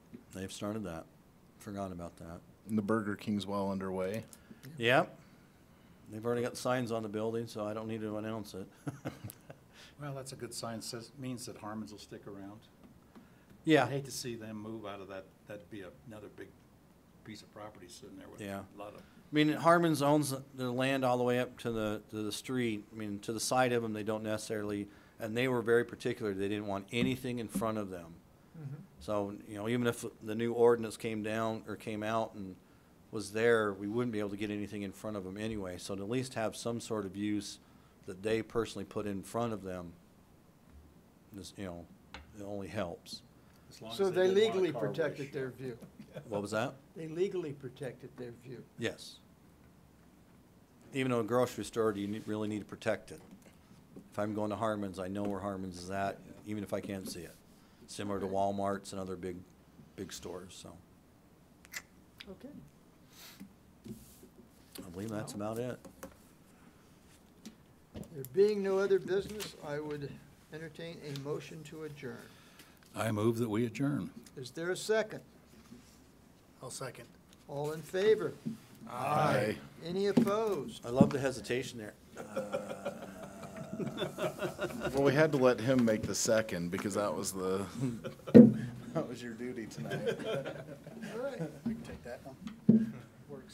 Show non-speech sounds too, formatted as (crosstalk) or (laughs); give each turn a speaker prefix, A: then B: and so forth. A: They've started that. Forgot about that.
B: And The Burger King's well underway.
A: Yep. They've already got signs on the building, so I don't need to announce it.
C: Well, that's a good sign, says, means that Harmon's will stick around.
A: Yeah.
C: I'd hate to see them move out of that, that'd be another big piece of property sitting there with
A: Yeah.
C: a lot of,
A: I mean, Harmon's owns their land all the way up to the, to the street, I mean, to the side of them, they don't necessarily, and they were very particular, they didn't want anything in front of them. So, you know, even if the new ordinance came down, or came out and was there, we wouldn't be able to get anything in front of them anyway, so to at least have some sort of use that they personally put in front of them, this, you know, it only helps.
C: as long as
D: So
C: didn't
D: they
C: want a
D: legally
C: car wash.
D: protected their view.
A: What was that?
D: They legally protected their view.
A: Yes. Even though a grocery store, you need- really need to protect it. If I'm going to Harmon's, I know where Harmon's is at, even if I can't see it. Similar to Walmart's and other big, big stores, so
D: Okay.
A: I believe that's about it.
D: There being no other business, I would entertain a motion to adjourn.
C: I move that we adjourn.
D: Is there a second?
E: I'll second.
D: All in favor?
B: Aye.
D: Any
E: (laughs)
D: opposed?
A: I love the hesitation there.
C: (laughs)
D: (laughs)
B: Well, we had to let him make the second because that was the, (laughs) that was your duty tonight.
D: All right.
E: We can take that one.